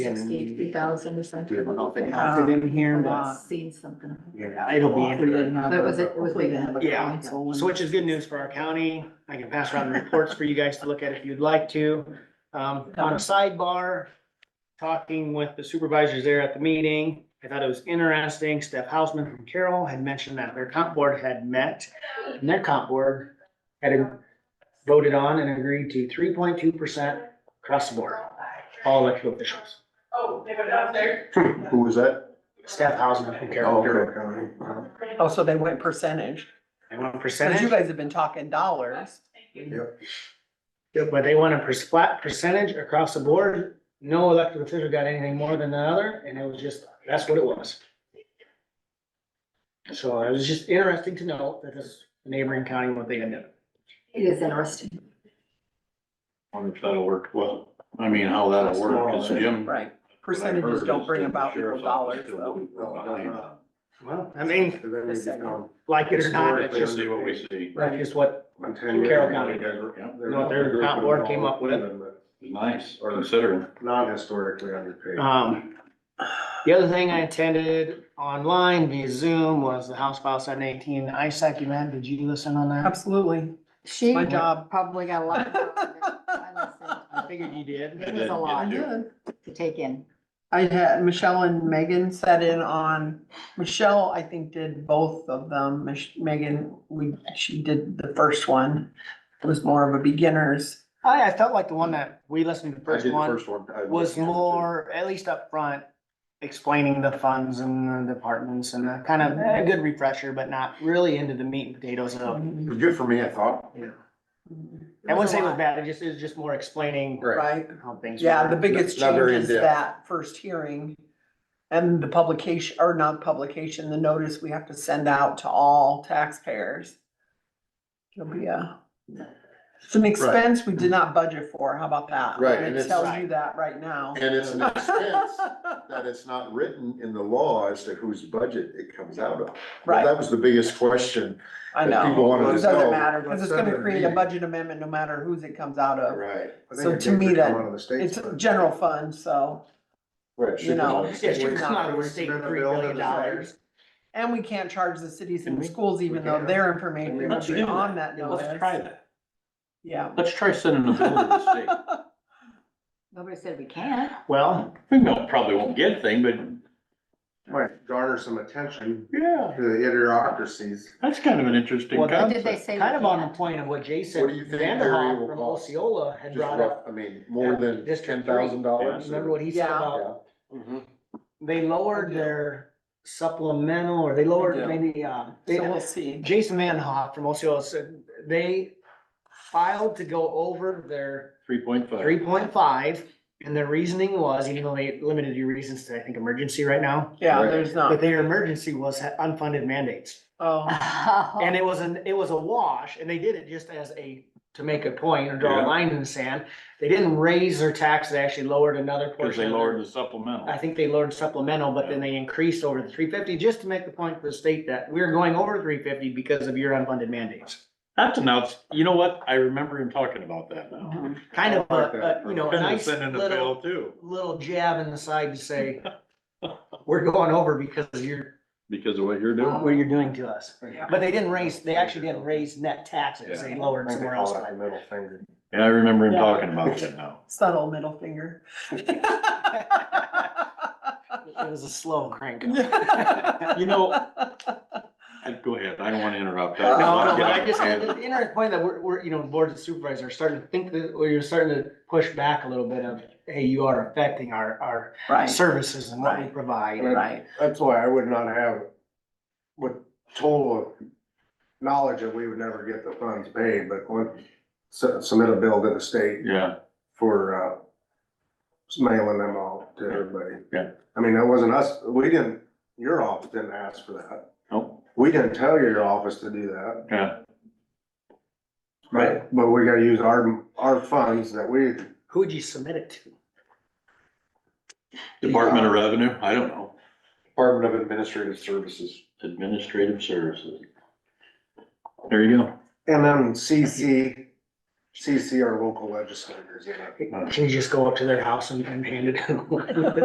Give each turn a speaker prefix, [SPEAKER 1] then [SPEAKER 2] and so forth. [SPEAKER 1] sixty-three thousand or something.
[SPEAKER 2] I don't know if it
[SPEAKER 1] I've
[SPEAKER 2] happened in here,
[SPEAKER 1] I've
[SPEAKER 2] but
[SPEAKER 1] Seen something.
[SPEAKER 2] yeah, it'll be. in
[SPEAKER 3] Hopefully it
[SPEAKER 2] here.
[SPEAKER 3] didn't happen,
[SPEAKER 1] That was it,
[SPEAKER 3] but
[SPEAKER 1] was
[SPEAKER 3] hopefully
[SPEAKER 1] big.
[SPEAKER 3] it happened.
[SPEAKER 2] Yeah.
[SPEAKER 3] So when-
[SPEAKER 2] So which is good news for our county. I can pass around the reports for you guys to look at if you'd like to. Um, on a sidebar, talking with the supervisors there at the meeting, I thought it was interesting. Steph Hausman from Carroll had mentioned that their comp board had met. And their comp board had voted on and agreed to three point two percent across the board, all elected officials.
[SPEAKER 4] Who was that?
[SPEAKER 2] Steph Hausman from
[SPEAKER 4] Oh,
[SPEAKER 2] Carroll.
[SPEAKER 4] Carroll County. Uh-huh.
[SPEAKER 3] Oh, so they went percentage,
[SPEAKER 2] They want a
[SPEAKER 3] cause you
[SPEAKER 2] percentage,
[SPEAKER 3] guys have been talking dollars.
[SPEAKER 2] but they want a per- flat percentage across the board. No elected official got anything more than the other, and it was just, that's what it was. So it was just interesting to know that this neighboring county, what they ended up.
[SPEAKER 1] It is interesting.
[SPEAKER 5] Wonder if that'll work well. I mean, how that'll work is Jim. what
[SPEAKER 3] Right,
[SPEAKER 5] I've heard
[SPEAKER 3] percentages don't
[SPEAKER 5] is
[SPEAKER 3] bring
[SPEAKER 5] that the
[SPEAKER 3] about equal
[SPEAKER 5] sheriff's
[SPEAKER 3] dollars
[SPEAKER 5] office still
[SPEAKER 3] though.
[SPEAKER 5] wouldn't go behind.
[SPEAKER 2] Well, I mean,
[SPEAKER 4] And then we become-
[SPEAKER 2] like it or not, it's
[SPEAKER 5] Historically,
[SPEAKER 2] just,
[SPEAKER 5] see what we see.
[SPEAKER 2] that's just what,
[SPEAKER 4] in 10 years,
[SPEAKER 2] Carroll County.
[SPEAKER 4] they were-
[SPEAKER 5] Yeah.
[SPEAKER 4] they're-
[SPEAKER 2] No, their
[SPEAKER 4] they're
[SPEAKER 2] comp board came up with it.
[SPEAKER 4] women,
[SPEAKER 5] Nice, or considering.
[SPEAKER 4] but Not historically underpaid.
[SPEAKER 2] um. The other thing I attended online via Zoom was the House File seven eighteen ISAC event. Did you listen on that?
[SPEAKER 3] Absolutely.
[SPEAKER 1] She
[SPEAKER 3] My job.
[SPEAKER 1] probably got a lot. of work to do. I
[SPEAKER 2] I figured you did.
[SPEAKER 1] listened. It was a
[SPEAKER 5] I
[SPEAKER 1] lot
[SPEAKER 5] did,
[SPEAKER 1] to take in.
[SPEAKER 3] I had, Michelle and Megan sat in on, Michelle, I think, did both of them, Mich- Megan, we, she did the first one. It was more of a beginner's,
[SPEAKER 2] I, I felt like the one that we listened to the first one.
[SPEAKER 4] I
[SPEAKER 2] was
[SPEAKER 4] listened to it.
[SPEAKER 2] more, at least up front, explaining the funds and the departments and the kind of a good refresher, but not really into the meat and potatoes of.
[SPEAKER 4] It was good for me, I thought.
[SPEAKER 2] I Oh. wouldn't say it was bad, it just, it was just more explaining
[SPEAKER 3] right?
[SPEAKER 2] how things.
[SPEAKER 3] Yeah,
[SPEAKER 2] work.
[SPEAKER 3] the biggest
[SPEAKER 4] Not
[SPEAKER 3] change
[SPEAKER 4] very
[SPEAKER 3] is
[SPEAKER 4] in-depth.
[SPEAKER 3] that first hearing and the publication, or not publication, the notice we have to send out to all taxpayers. It'll be a, it's an expense we did not budget for, how about that?
[SPEAKER 4] Right, and
[SPEAKER 3] And it
[SPEAKER 4] it's-
[SPEAKER 3] tells you that right now.
[SPEAKER 4] And it's an expense that it's not written in the law as to whose budget it comes out of.
[SPEAKER 3] Right.
[SPEAKER 4] That was the biggest question.
[SPEAKER 3] I
[SPEAKER 4] that
[SPEAKER 3] know,
[SPEAKER 4] People wanted
[SPEAKER 3] it
[SPEAKER 4] to
[SPEAKER 3] doesn't
[SPEAKER 4] know.
[SPEAKER 3] matter, cause it's gonna
[SPEAKER 4] What's that
[SPEAKER 3] create a
[SPEAKER 4] mean?
[SPEAKER 3] budget amendment no matter whose it comes out of.
[SPEAKER 4] Right.
[SPEAKER 3] So to me that It's a general fund, so, you know,
[SPEAKER 2] Yeah, she was not gonna state three billion dollars.
[SPEAKER 3] and we can't charge the cities
[SPEAKER 2] And
[SPEAKER 3] and
[SPEAKER 2] we-
[SPEAKER 3] schools even though
[SPEAKER 4] can't.
[SPEAKER 3] their
[SPEAKER 4] And we
[SPEAKER 3] information
[SPEAKER 4] have
[SPEAKER 3] is
[SPEAKER 4] to do
[SPEAKER 3] on that notice.
[SPEAKER 5] Let's try that.
[SPEAKER 3] Yeah.
[SPEAKER 5] Let's try sending a bill to the state.
[SPEAKER 1] Nobody said we can't.
[SPEAKER 2] Well,
[SPEAKER 5] We won't- probably won't get a thing, but
[SPEAKER 4] Garner some attention
[SPEAKER 5] yeah,
[SPEAKER 4] to the idiocracies.
[SPEAKER 5] that's kind of an interesting
[SPEAKER 2] Well,
[SPEAKER 1] Or did they
[SPEAKER 5] concept.
[SPEAKER 1] say? we
[SPEAKER 2] kind of on
[SPEAKER 1] can't?
[SPEAKER 2] the point of what Jason
[SPEAKER 4] What do you think area
[SPEAKER 2] Vanderhoff
[SPEAKER 4] will
[SPEAKER 2] from
[SPEAKER 4] cost?
[SPEAKER 2] Osceola had
[SPEAKER 4] Just
[SPEAKER 2] brought
[SPEAKER 4] rough,
[SPEAKER 2] up.
[SPEAKER 4] I mean, more than ten
[SPEAKER 2] District three.
[SPEAKER 4] thousand dollars.
[SPEAKER 2] Remember what he said
[SPEAKER 3] Yeah.
[SPEAKER 2] about
[SPEAKER 4] Mm-hmm.
[SPEAKER 2] they lowered
[SPEAKER 3] Yeah.
[SPEAKER 2] their supplemental, or they lowered
[SPEAKER 3] Yeah.
[SPEAKER 2] maybe, um, they,
[SPEAKER 3] So we'll see.
[SPEAKER 2] Jason Van Hoff from Osceola said they filed to go over their
[SPEAKER 5] Three point five.
[SPEAKER 2] three point five. And their reasoning was, even though they limited your reasons to, I think, emergency right now,
[SPEAKER 3] Yeah,
[SPEAKER 4] Right.
[SPEAKER 3] there's
[SPEAKER 2] but
[SPEAKER 3] not,
[SPEAKER 2] their emergency was ha- unfunded mandates.
[SPEAKER 3] oh,
[SPEAKER 2] And it was an, it was a wash and they did it just as a, to make a point or draw a
[SPEAKER 5] Yeah.
[SPEAKER 2] line in the sand. They didn't raise their tax, they actually lowered another portion.
[SPEAKER 5] Cause they
[SPEAKER 2] of their-
[SPEAKER 5] lowered the supplemental.
[SPEAKER 2] I think they lowered supplemental, but then they increased over the three fifty, just to make the point for the state that we're going over three fifty because of your unfunded mandates.
[SPEAKER 5] That's an outs, you know what? I remember him talking about that now.
[SPEAKER 2] Kind of
[SPEAKER 4] I like
[SPEAKER 2] a,
[SPEAKER 4] that.
[SPEAKER 2] a, you know, a
[SPEAKER 5] Couldn't
[SPEAKER 2] nice
[SPEAKER 5] send in a bill
[SPEAKER 2] little,
[SPEAKER 5] too,
[SPEAKER 2] little jab in the side to say, we're going over because of your,
[SPEAKER 5] because of what you're doing.
[SPEAKER 2] what you're doing to us.
[SPEAKER 3] Yeah.
[SPEAKER 2] But they didn't raise, they actually didn't raise net taxes, they lowered somewhere else.
[SPEAKER 4] Middle finger.
[SPEAKER 5] Yeah, I remember him
[SPEAKER 3] Yeah.
[SPEAKER 5] talking about that now.
[SPEAKER 3] subtle middle finger.
[SPEAKER 2] It was a slow crank.
[SPEAKER 5] You know, I- go ahead, I don't wanna interrupt. I-
[SPEAKER 2] No,
[SPEAKER 3] No,
[SPEAKER 2] no, but
[SPEAKER 5] Get
[SPEAKER 2] I just,
[SPEAKER 5] out of
[SPEAKER 2] the
[SPEAKER 5] hand.
[SPEAKER 2] interesting point that we're, we're, you know, boards of supervisors are starting to think that, or you're starting to push back a little bit of, hey, you are affecting our, our
[SPEAKER 3] Right,
[SPEAKER 2] services and what we provide.
[SPEAKER 3] right,
[SPEAKER 4] That's why I would not have, with total knowledge that we would never get the funds paid, but when, su- submit a bill to the state
[SPEAKER 5] Yeah,
[SPEAKER 4] for, uh, mailing them all to everybody.
[SPEAKER 5] Yeah.
[SPEAKER 4] I mean, that wasn't us, we didn't, your office didn't ask for that.
[SPEAKER 5] oh,
[SPEAKER 4] We didn't tell your office to do that.
[SPEAKER 5] yeah,
[SPEAKER 4] Right. But we gotta use our, our funds that we,
[SPEAKER 2] Who would you submit it to?
[SPEAKER 5] Department of Revenue, I don't know,
[SPEAKER 4] Department of Administrative Services.
[SPEAKER 5] Administrative Services. There you go.
[SPEAKER 4] And then CC CC our local legislators in it.
[SPEAKER 2] Can you just go up to their house and, and hand it?